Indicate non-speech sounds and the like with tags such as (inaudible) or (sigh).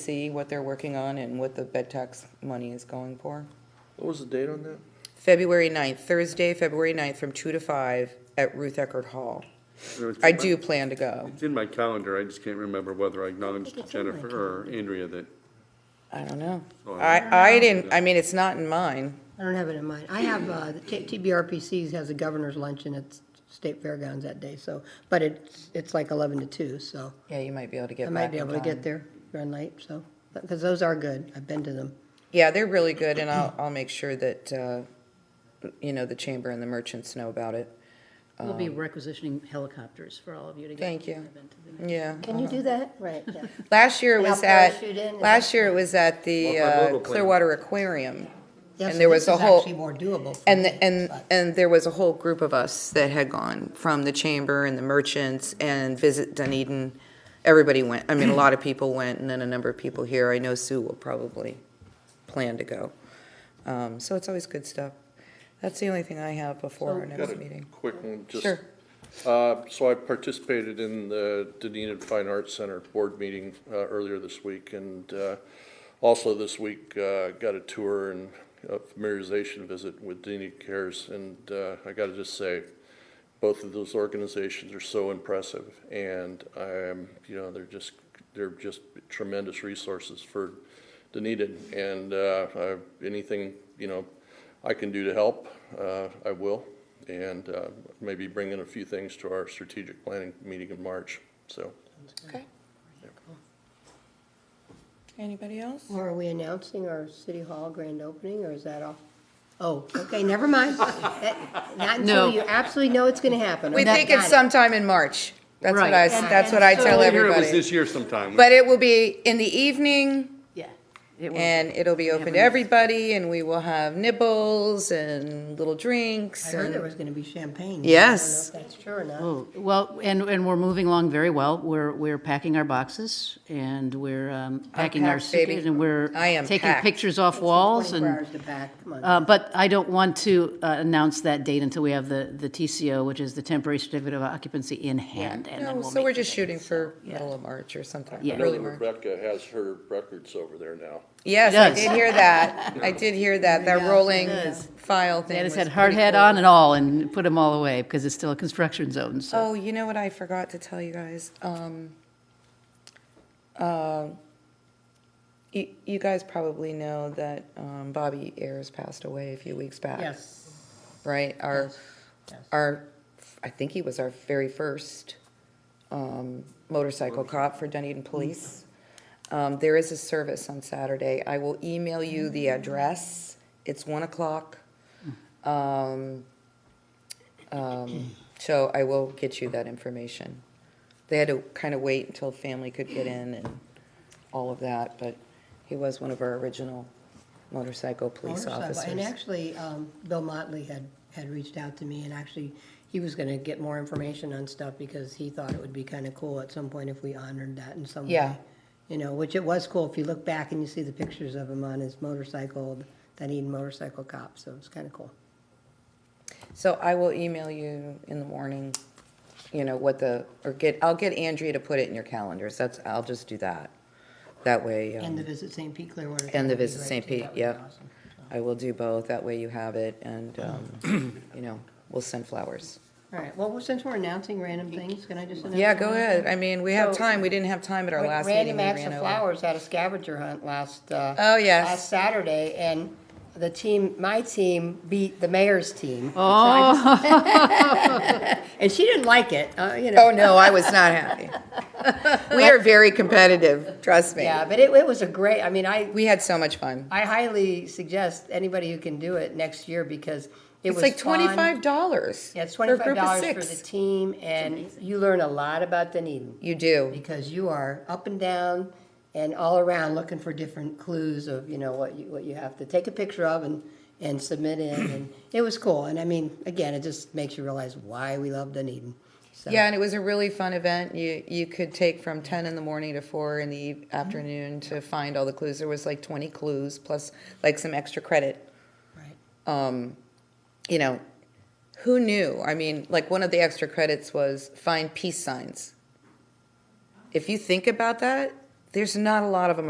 see what they're working on and what the bed tax money is going for. What was the date on that? February 9th, Thursday, February 9th, from 2 to 5 at Ruth Eckert Hall. It's I in my- do plan to go. It's in my calendar, I just can't remember whether I acknowledged to Jennifer or Andrea that, I don't know. Oh, I, I didn't, I mean, it's not in mine. I don't have it in mind. I have, uh, the T- TBRPCs has a governor's luncheon at State Fairgrounds that day, so, but it's, it's like 11 to 2, so Yeah, you might be able to I get might back be in able to get time. there, run late, so, because those are good. I've been to them. Yeah, they're really good, and I'll, I'll make sure that, uh, you know, the chamber and the merchants know about it. We'll be requisitioning helicopters for all of you to get. Um, Thank to the you. event to the next- Yeah. Can you do that? Right, (laughs) yeah. Last year it And I'll was at, parachute in and- last year it was at the Well, my uh, little plan. Clearwater Aquarium. And there was a whole- Actually more doable. for And, me, the- and, but- and there was a whole group of us that had gone from the chamber and the merchants and Visit Dunedin. Everybody went, I mean, a lot of people went and then a number of people here. I know Sue will probably plan to go. Um, so it's always good stuff. That's the only thing I have before our Got next a meeting. Quick one, just, Sure. uh, so I participated in the Dunedin Fine Arts Center Board meeting, uh, earlier this week, and, uh, also this week, uh, got a tour and a familiarization visit with Dunedin Cares, and, uh, I gotta just say, both of those organizations are so impressive, and I'm, you know, they're just, they're just tremendous resources for Dunedin, and, uh, I, anything, you know, I can do to help, uh, I will, and, uh, maybe bring in a few things to our strategic planning meeting in March, so. Okay. Anybody else? Well, Are we announcing our City Hall grand opening, or is that all? Oh, okay, never (laughs) mind. That- Not No. until you absolutely know it's going to happen. We Okay, think got it's it. sometime in March. That's what I, Right. that's what I tell I hear it was everybody. this year sometime. But it will be in the evening. Yeah. it will. And it'll be open to everybody, and we will have nibbles and little drinks. I heard there and- was going to be champagne. Yes. I don't know if that's true or not. Oh, Well, and, and we're moving along very well. We're, we're packing our boxes and we're um, packing our packed, baby. suitcases and we're. I am Taking packed. pictures off walls 24 and, hours to pack, come on. uh, but I don't want to uh, announce that date until we have the, the TCO, which is the temporary certificate of occupancy in hand. and then No, we'll so we're make the just date. shooting for yeah. middle of March or something, Yeah. early March. Rebecca has her records over there now. Yes, I does. did hear that. I did hear that, that rolling file thing They had was us had hard pretty hat cool. on and all and put them all away because it's still a construction zone, so. Oh, you know what I forgot to tell you guys? Um, uh, you, you guys probably know that um, Bobby Ayers passed away a few weeks back. Yes. right? Our, yes. our, I think he was our very first um, motorcycle cop for Dunedin Mm-hmm. Police. Um, There is a service on Saturday. I will email you the Mm-hmm. address. It's 1 o'clock. Um, Hmm. um, So I will get you that information. They had to kind of wait until family could get in and all of that, but he was one of our original motorcycle police Motorcycle. officers. And actually, um, Bill Motley had, had reached out to me, and actually, he was gonna get more information on stuff because he thought it would be kinda cool at some point if we honored that in some way. Yeah. You know, which it was cool, if you look back and you see the pictures of him on his motorcycle, that Eden motorcycle cop, so it's kinda cool. So I will email you in the morning, you know, what the, or get, I'll get Andrea to put it in your calendars. That's, I'll just do that. That way, And the um, Visit St. Pete Clearwater. and the would be Visit great, St. too. Pete, That would be yep. awesome. I will do both. That way you have it and, (clears throat) um, you know, we'll send flowers. All right, well, since we're announcing random things, can I just announce? Yeah, go one? ahead. I mean, we have So- time. We didn't have time at our last Randy meeting. We Max ran over. of Flowers had a scavenger hunt last, uh. Oh, yes. Last Saturday, and the team, my team beat the mayor's team. (laughs) Oh. (laughs) And she didn't like it, uh, you (laughs) know. Oh, no, I was not happy. We are very competitive, trust me. Yeah, but it, it was a great, I mean, I, We had so much fun. I highly suggest anybody who can do it next year because it It's was like fun. twenty-five dollars. Yeah, it's twenty-five dollars for the team, and you learn a lot about Dunedin. You do. because you are up and down and all around looking for different clues of, you know, what you, what you have to take a picture of and, and submit in. And it was cool. And I mean, again, it just makes you realize why we love Dunedin. So, Yeah, and it was a really fun event. You you could take from ten in the morning to four in the eve- Mm-hmm. afternoon to find all the clues. There was like twenty clues plus like some extra credit. Right. Um, you know, who knew? I mean, like one of the extra credits was find peace signs. If you think about that, there's not a lot of them